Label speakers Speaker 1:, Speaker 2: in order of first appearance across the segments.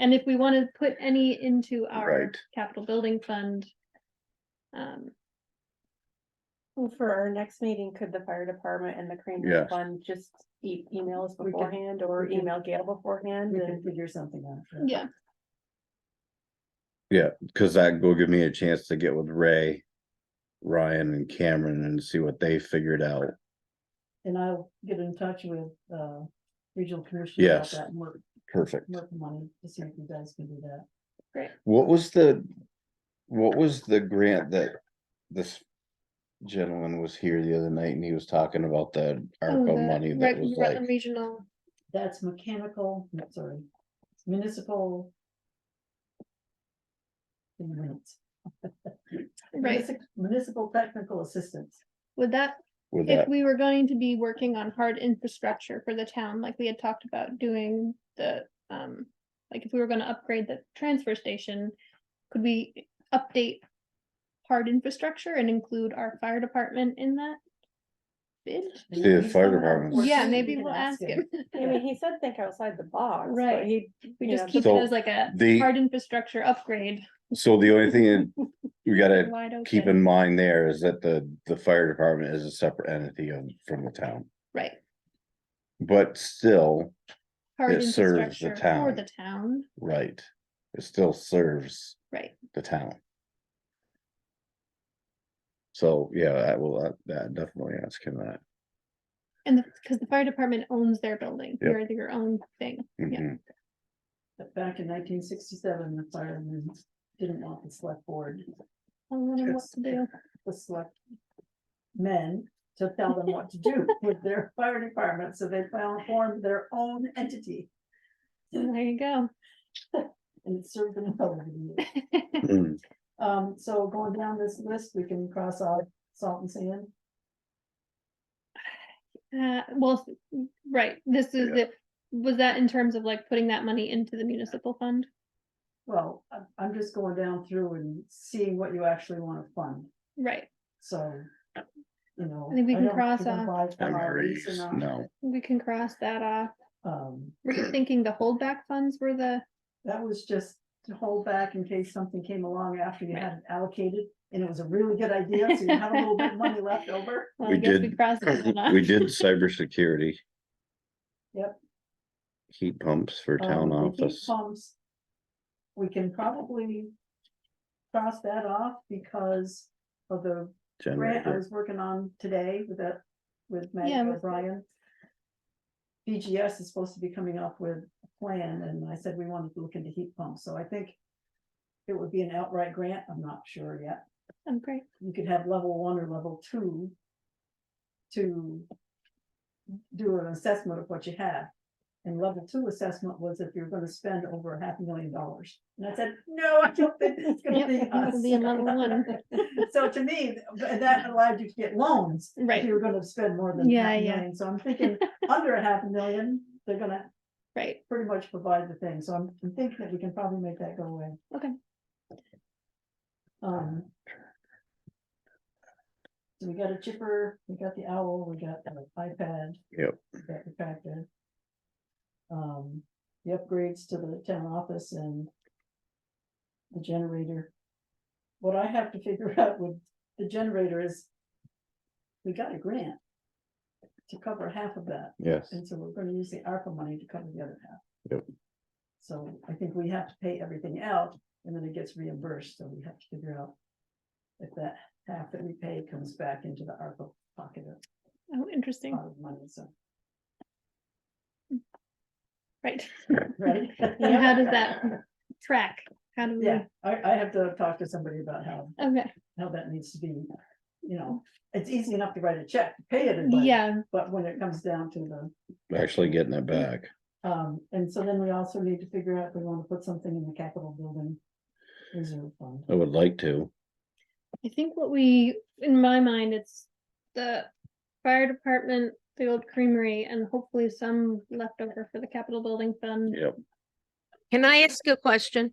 Speaker 1: And if we want to put any into our
Speaker 2: Right.
Speaker 1: capital building fund. Um,
Speaker 3: Well, For our next meeting, could the fire department and the crane
Speaker 2: Yes.
Speaker 3: fund just e- email us
Speaker 4: We can-
Speaker 3: beforehand or
Speaker 4: we can-
Speaker 3: email Gail beforehand
Speaker 4: We can
Speaker 3: and
Speaker 4: figure something out.
Speaker 1: yeah,
Speaker 2: Cause that will give me a chance to get with Ray, Ryan and Cameron and see what they figured out.
Speaker 4: And I'll get in touch with, uh, regional commissioner. about
Speaker 2: Yes.
Speaker 4: That work,
Speaker 2: Perfect.
Speaker 4: work money, to see if you guys can do that.
Speaker 2: What was the, what was the grant that this gentleman was here the other night and he was talking about the
Speaker 1: oh,
Speaker 2: ARPA
Speaker 1: the
Speaker 2: money that
Speaker 1: Rut-
Speaker 2: was like,
Speaker 1: Rutland Regional,
Speaker 4: That's mechanical, no, sorry, municipal. in minutes.
Speaker 1: right,
Speaker 4: Munici- Municipal technical assistance.
Speaker 1: would that,
Speaker 2: with
Speaker 1: if
Speaker 2: that?
Speaker 1: we were going to be working on hard infrastructure for the town, like we had talked about doing the, um. Like if we were gonna upgrade the transfer station, could we update hard infrastructure and include our fire department in that? Bid,
Speaker 2: See, the fire department.
Speaker 4: Or
Speaker 1: yeah,
Speaker 4: something,
Speaker 1: maybe
Speaker 4: you can
Speaker 1: we'll ask him,
Speaker 3: I mean, he said think outside the box. but
Speaker 1: Right.
Speaker 3: He,
Speaker 1: we
Speaker 3: you
Speaker 1: just
Speaker 3: know,
Speaker 1: keep
Speaker 2: So
Speaker 1: it as like a
Speaker 2: The,
Speaker 1: hard infrastructure upgrade.
Speaker 2: so the only thing that we gotta
Speaker 1: wide
Speaker 2: keep
Speaker 1: open.
Speaker 2: in mind there is that the, the fire department is a separate entity of, from the town.
Speaker 1: Right.
Speaker 2: But still,
Speaker 1: hard
Speaker 2: It serves the
Speaker 1: infrastructure For
Speaker 2: town.
Speaker 1: the town,
Speaker 2: right, it still serves
Speaker 1: right,
Speaker 2: the town. So, yeah, I will, uh, that definitely ask him that.
Speaker 1: and the, cause the fire department owns their building,
Speaker 2: Yep.
Speaker 1: you're your own thing, Yeah.
Speaker 2: Mhm.
Speaker 4: But Back in nineteen sixty-seven, the firemen didn't want the select board,
Speaker 1: I don't know what
Speaker 4: Yes.
Speaker 1: to do,
Speaker 4: the select men to tell them what to do with their fire department, so they found, formed their own entity.
Speaker 1: there you go.
Speaker 4: And it served them well over the years.
Speaker 2: Mm.
Speaker 4: Um, so going down this list, we can cross out salt and sand.
Speaker 1: Uh, well, s- right, this is
Speaker 2: Yeah.
Speaker 1: it, was that in terms of like putting that money into the municipal fund?
Speaker 4: Well, I'm, I'm just going down through and seeing what you actually wanna fund,
Speaker 1: Right,
Speaker 4: so. You know.
Speaker 1: I think we can
Speaker 4: don't
Speaker 1: cross
Speaker 4: even
Speaker 1: off.
Speaker 4: buy from our lease
Speaker 2: MREs,
Speaker 4: or not,
Speaker 2: no,
Speaker 1: we can cross that off,
Speaker 4: Um.
Speaker 1: were you thinking the holdback funds were the,
Speaker 4: That was just to hold back in case something came along after you had it allocated, and it was a really good idea, so you had a little bit of money left over.
Speaker 1: well,
Speaker 2: We
Speaker 1: I guess we
Speaker 2: did-
Speaker 1: crossed that one off.
Speaker 2: we did cybersecurity.
Speaker 4: Yep.
Speaker 2: Heat pumps for
Speaker 4: Um,
Speaker 2: town
Speaker 4: the heat
Speaker 2: office,
Speaker 4: Pumps. We can probably cross that off because of the grant I
Speaker 2: generator,
Speaker 4: was working on today with that, with Maggie
Speaker 1: Yeah, with-
Speaker 4: O'Brien. BGS is supposed to be coming up with a plan, and I said we wanted to look into heat pumps, so I think it would be an outright grant, I'm not sure yet.
Speaker 1: Oh, great,
Speaker 4: you could have level one or level two. To. Do an assessment of what you have. And level two assessment was if you're gonna spend over a half a million dollars. And I said, no, I don't think it's gonna
Speaker 1: Yep,
Speaker 4: be
Speaker 1: that would be a level one.
Speaker 4: us. So to me, th- that allowed you to get loans. If
Speaker 1: Right.
Speaker 4: you were gonna spend more than
Speaker 1: Yeah,
Speaker 4: half a
Speaker 1: yeah.
Speaker 4: million, so I'm thinking under a half a million, they're gonna
Speaker 1: right,
Speaker 4: pretty much provide the thing, so I'm I'm thinking that we can probably make that go away.
Speaker 1: Okay.
Speaker 4: Um. So we got a chipper, we got the owl, we got the iPad.
Speaker 2: Yep.
Speaker 4: we Got the tractor. Um, the upgrades to the town office and. The generator. What I have to figure out with the generator is. We got a grant. To cover half of that.
Speaker 2: yes,
Speaker 4: And so we're gonna use the ARPA money to cover the other half.
Speaker 2: Yep.
Speaker 4: So I think we have to pay everything out and then it gets reimbursed, so we have to figure out. If that half that we pay comes back into the ARPA pocket of-
Speaker 1: oh, interesting,
Speaker 4: pot of money, so,
Speaker 1: right,
Speaker 4: right?
Speaker 1: And how does that- track, how do we,
Speaker 4: Yeah, I, I have to talk to somebody about how,
Speaker 1: okay,
Speaker 4: how that needs to be, you know, it's easy enough to write a check, to pay it in money,
Speaker 1: yeah,
Speaker 4: but when it comes down to the.
Speaker 2: actually getting it back.
Speaker 4: Um, and so then we also need to figure out, if we wanna put something in the capital building. Reserve fund.
Speaker 2: I would like to,
Speaker 1: I think what we, in my mind, it's the fire department, the old creamery, and hopefully some leftover for the Capitol Building
Speaker 4: Mm.
Speaker 1: Fund.
Speaker 2: yep,
Speaker 5: Can I ask a question?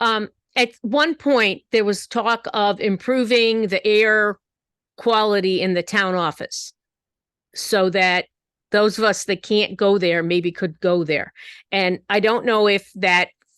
Speaker 5: Um, at one point, there was talk of improving the air quality in the town office. So that those of us that can't go there maybe could go there. And I don't know if that